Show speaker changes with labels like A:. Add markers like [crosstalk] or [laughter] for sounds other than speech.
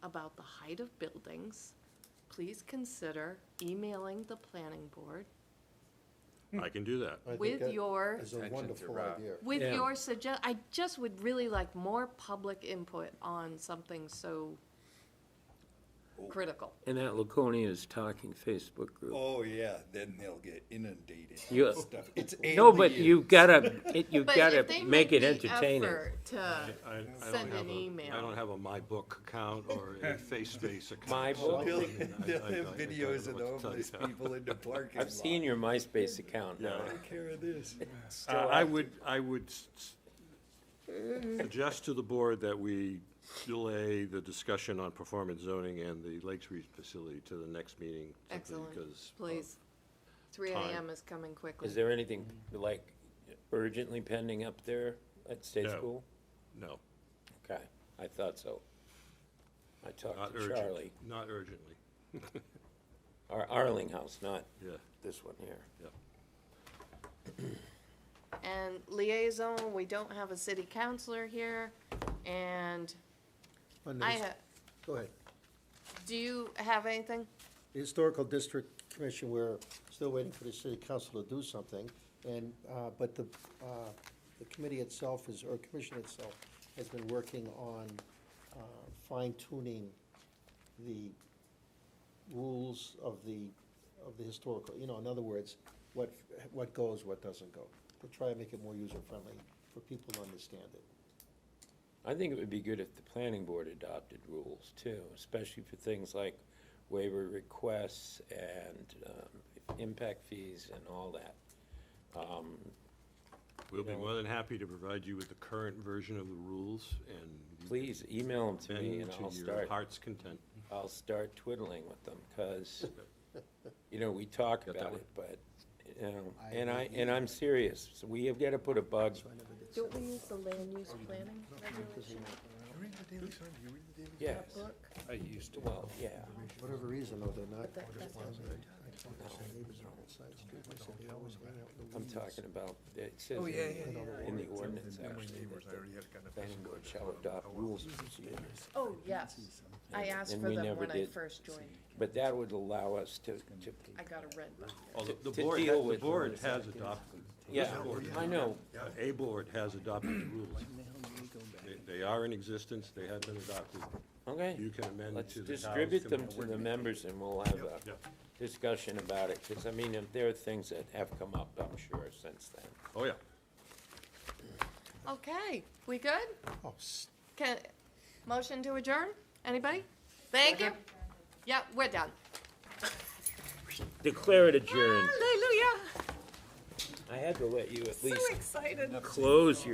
A: about the height of buildings, please consider emailing the planning board
B: I can do that.
C: I think
A: With
C: that
A: your-
C: Is
D: Attention
C: a
D: to
C: wonderful
D: Rob.
C: idea.
A: with
E: Yeah.
A: your suggest, I just would really like more public input on something so critical.
E: And that Laconia's Talking Facebook group.
D: Oh, yeah, then they'll get inundated. with
E: Yeah.
D: stuff. It's
E: [laughs] No, but
D: alien.
E: you gotta, [laughs] it- you
A: But
E: gotta
A: if they
E: make it
A: the
E: entertaining.
A: effort To
B: I- I don't
A: Send an
B: have a-
A: email.
B: I don't have a My Book account or
A: [laughs]
B: a FaceSpace account.
E: My
B: so I
E: Book?
D: They'll,
B: mean, I-
D: they'll
B: I- I-
D: have
B: I don't
D: [laughs] videos
B: know
D: of the
B: what to tell
D: homeless
B: you.
D: [laughs] people in the parking lot.
E: I've seen your MySpace account now.
D: Take care of this.
B: Uh, I would, I would s- s- suggest to the board that we delay the discussion on performance zoning and the Lakes Reach facility to the next meeting. simply because
A: Excellent,
B: of-
A: please. Three
B: time.
A: AM is coming quickly.
E: Is there anything like urgently pending up there at State
B: No.
E: School?
B: uh, No,
E: Okay, I thought so. I
B: not
E: talked to Charlie,
B: urgently, not urgently,
E: Ar- Arling House, not
B: yeah,
E: this one here.
B: yeah.
A: And liaison, we don't have a city councillor here, and
C: On the
A: I,
C: his-
A: ha-
C: Go ahead.
A: do you have anything?
C: The Historical District Commission, we're still waiting for the city council to do something, and, uh, but the, uh, the committee itself is, or commission itself, has been working on uh, fine tuning the rules of the, of the historical, you know, in other words, what, what goes, what doesn't go. To try and make it more user-friendly for people to understand it.
E: I think it would be good if the planning board adopted rules too, especially for things like waiver requests and um, impact fees and all that.
B: We'll be more than happy to provide you with the current version of the rules and.
E: Please email them to me
B: Bend
E: and
B: to
E: I'll
B: your
E: start,
B: heart's content.
E: I'll start twiddling with them,
B: [laughs]
E: because, you know, we talk
B: Got that
E: about
B: one?
E: it, but, you know, and I, and I'm serious. So We have got to put a bug,
A: Don't we use the land use planning regulation
D: You read the Daily Sun? Do you read the Daily?
E: yes,
A: book?
E: I used to, well, yeah.
C: For whatever reason, though, they're not.
A: that- that's not
E: I'm talking about, it says
D: Oh, yeah, yeah,
E: in
D: yeah.
E: in the ordinance, actually,
D: Neighbors, I already had kind of.
E: planning board shall
B: oh,
E: adopt rules and procedures.
A: Oh, yes. I asked
E: And
A: for
E: we
A: them
E: never
A: when I
E: did.
A: first joined.
E: But that would allow us to, to,
A: I got a red book.
B: Oh, the- The
E: to
B: board,
E: deal
B: ha- the
E: with
B: board
E: those
B: has adopted.
E: yeah, I know,
B: A board has adopted the rules. They- They are in existence, they have been adopted.
E: okay.
B: You can amend
E: Let's
B: to the town's.
E: distribute them
B: com-
E: to the members and we'll have a
B: Yep.
E: discussion about it, because I mean, there are things that have come up, I'm sure, since then.
B: Oh, yeah.
A: Okay, we good?
C: Oh, s-
A: Can, motion to adjourn? Anybody? Thank you. Yeah, we're done.
E: Declare it adjourned.
A: Hallelujah.
E: I had to let you at
A: So
E: least
A: excited.
E: close your.